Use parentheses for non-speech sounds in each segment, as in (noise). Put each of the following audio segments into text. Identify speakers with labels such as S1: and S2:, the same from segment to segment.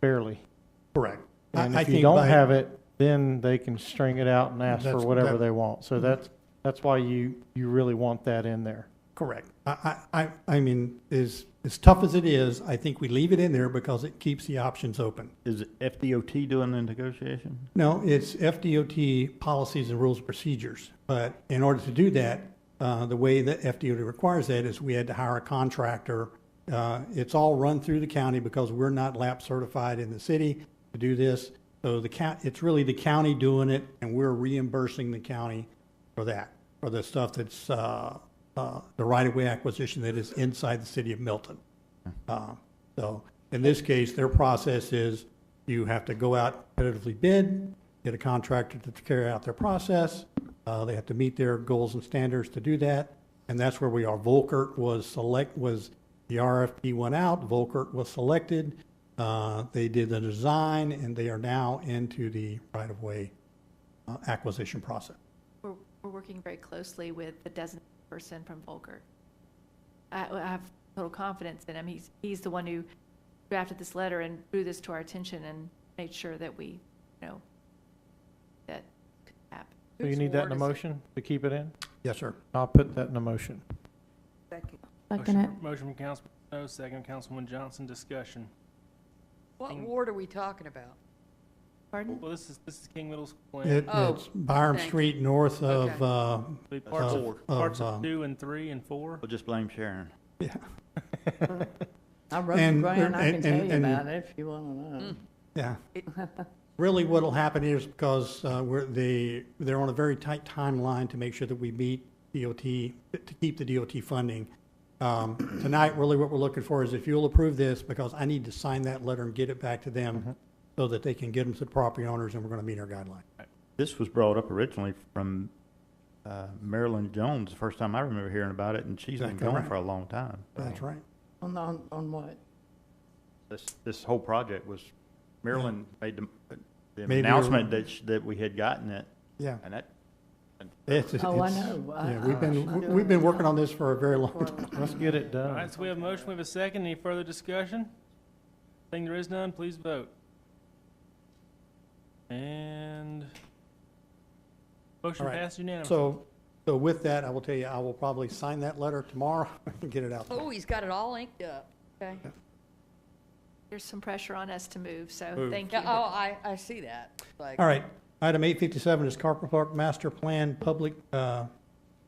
S1: barely.
S2: Correct. I-
S1: And
S2: I
S1: if you
S2: think
S1: don't
S2: by-
S1: have it, then they can string it out and ask for
S2: That's-
S1: whatever
S2: that- Mm-hmm.
S1: they want. So that's, that's why you, you really want that in there.
S2: Correct. I, I, I- I mean, as, as tough as it is, I think we leave it in there because it keeps the options open.
S3: Is FDOT doing the negotiation?
S2: No, it's FDOT policies and rules and procedures. But in order to do that, uh, the way that FDOT requires that is we had to hire a contractor. Uh, It's all run through the county because we're not lap certified in the city to do this. So the county, it's really the county doing it and we're reimbursing the county for that, for the stuff that's, uh, uh, the right-of-way acquisition that is inside the city of Milton. Uh, So in this case, their process is you have to go out competitively bid, get a contractor to carry out their process. Uh, They have to meet their goals and standards to do that. And that's where we are. Volkert was select, was, the RFP went out, Volkert was selected. Uh, They did the design and they are now into the right-of-way uh, acquisition process.
S4: We're, we're working very closely with the designated person from Volker. I, I have total confidence in him. He's, he's the one who drafted this letter and drew this to our attention and made sure that we, you know, that could happen.
S1: So you
S5: Whose
S1: need that in
S5: ward
S1: a
S5: is it?
S1: motion to keep it in?
S2: Yes, sir.
S1: I'll put that in a motion.
S6: Second it.
S7: Motion from Councilman Snow, second from Councilman Johnson, discussion.
S5: What ward are we talking about?
S4: Pardon?
S7: Well, this is, this is King Middle School
S2: It-
S7: and
S5: Oh,
S2: It's Byram
S5: thank you.
S2: Street north of,
S5: Okay.
S2: uh,
S7: the parts
S2: Of,
S7: of,
S2: uh,
S7: parts
S2: um,
S7: of two and three and four.
S3: Well, just blame Sharon.
S2: yeah.
S6: I wrote the
S2: And-
S6: grant, I can
S2: and-
S6: tell you
S2: and-
S6: about it if you want to know.
S2: Yeah.
S5: (laughs)
S2: Really, what'll happen is because uh, we're, they, they're on a very tight timeline to make sure that we meet DOT, to keep the DOT funding. Um, Tonight, really what we're looking for is if you'll approve this, because I need to sign that letter and get it back to
S6: Mm-hmm.
S2: them so that they can get them to the property owners and we're going to meet our guideline.
S3: This was brought up originally from uh, Marilyn Jones, the first time I remember hearing about it, and she's been
S2: Exactly
S3: going
S2: right.
S3: for a long time.
S2: That's right.
S6: On, on, on what?
S3: This, this whole project was, Marilyn made the- the
S2: Maybe
S3: announcement
S2: you're-
S3: that, sh- that we had gotten it,
S2: Yeah.
S3: and that,
S2: It's-
S6: Oh, I
S2: it's-
S6: know. I-
S2: Yeah, we've
S6: I'm
S2: been,
S6: doing
S2: we've been
S6: it.
S2: working on this for a very long time.
S1: Let's get it
S7: All
S1: done.
S7: right, so we have a motion, we have a second, any further discussion? Seeing there is none, please vote. And motion
S2: All right.
S7: passed unanimously.
S2: So, so with that, I will tell you, I will probably sign that letter tomorrow (laughs) and get it out.
S5: Oh, he's got it all inked up. Okay.
S4: There's some pressure on us to move, so
S2: Move.
S4: thank
S5: Yeah,
S4: you.
S5: oh, I, I see that. Like,
S2: All right, item eight fifty-seven is Carper Park Master Plan Public, uh,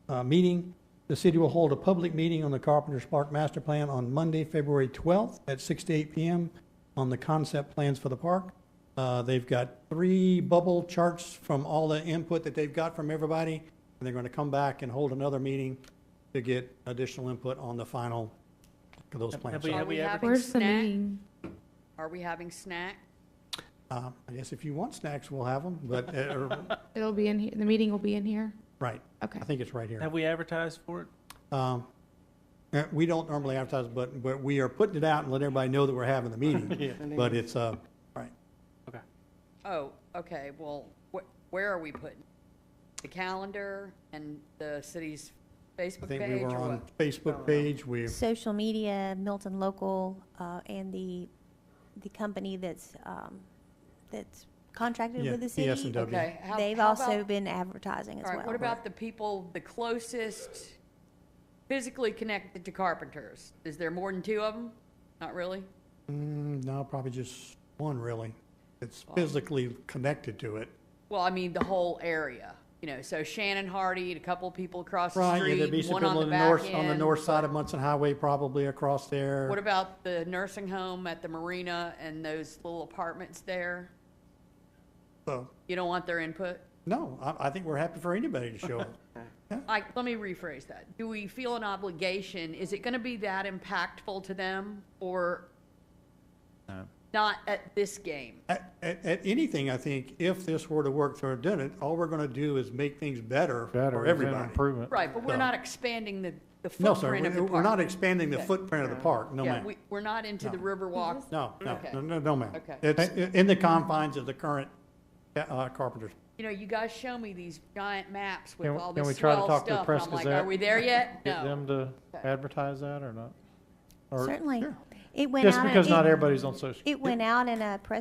S2: uh, Meeting. The city will hold a public meeting on the Carpenter's Park Master Plan on Monday, February twelfth at six to eight PM on the concept plans for the park. Uh, they've got three bubble charts from all the input that they've got from everybody, and they're gonna come back and hold another meeting to get additional input on the final, of those
S7: Have
S2: plans.
S7: we,
S5: Are
S7: have
S5: we
S7: we
S5: having-
S7: advertised?
S6: Where's the
S5: Snack?
S6: meeting?
S5: Are we having snack?
S2: Uh, I guess if you want snacks, we'll have them, but, uh,
S6: It'll be in here, the meeting will be in here?
S2: right,
S6: Okay.
S2: I think it's right here.
S7: Have we advertised for it?
S2: Um, uh, We don't normally advertise, but, but we are putting it out and letting everybody know that we're having the meeting. But it's, uh, right,
S5: Oh, okay, well, wh- where are we putting? The calendar and the city's
S2: I
S5: Facebook
S2: think we
S5: page
S2: were
S5: or
S2: on
S5: what?
S2: Facebook page, we,
S8: Social media, Milton Local, uh, and the, the company that's, um, that's contracted
S2: Yeah,
S8: with the city.
S2: ES&W.
S5: Okay, how-
S8: They've
S5: how
S8: also
S5: about-
S8: been advertising as
S5: All
S8: well.
S5: right, what about the people, the closest physically connected to carpenters? Is there more than two of them? Not really?
S2: mm, no, probably just one really. It's physically connected to it.
S5: Well, I mean, the whole area, you know, so Shannon Hardy, and a couple of people across the
S2: Right, yeah,
S5: street,
S2: there'd be some
S5: one on
S2: people
S5: the
S2: on the
S5: back
S2: north,
S5: end.
S2: on the north side of Munson Highway, probably across there.
S5: What about the nursing home at the marina and those little apartments there?
S2: So,
S5: You don't want their input?
S2: No, I, I think we're happy for anybody to
S5: (laughs)
S2: show up.
S5: Like, let me rephrase that. Do we feel an obligation? Is it gonna be that impactful to them or
S3: No.
S5: not at this game?
S2: At, at, at anything, I think, if this were to work through a it, all we're gonna do is make things better
S1: Better,
S2: for
S1: it's an
S2: everybody.
S1: improvement.
S5: Right, but we're
S2: No.
S5: not expanding the, the
S2: No, sir,
S5: footprint of the
S2: we're,
S5: park.
S2: we're not expanding the
S5: Okay.
S2: footprint of the park, no
S5: Yeah,
S2: ma'am.
S5: we, we're not into the
S2: No.
S5: Riverwalk.
S2: No, no,
S5: Okay.
S2: no, no, no, ma'am.
S5: Okay.
S2: It's i- in the confines of the current uh, carpenters.
S5: You know, you guys show me these giant maps with
S1: Can we-
S5: all
S1: can we
S5: this
S1: try to
S5: swell
S1: talk to the
S5: stuff, and
S1: Press
S5: I'm like,
S1: Gazette?
S5: are we there yet?
S1: Get
S5: No.
S1: them to
S5: Okay.
S1: advertise that or not? Or
S8: Certainly.
S1: It went out.
S8: Just
S1: in-
S8: because
S1: it-
S8: not everybody's on social.
S1: It went out in a press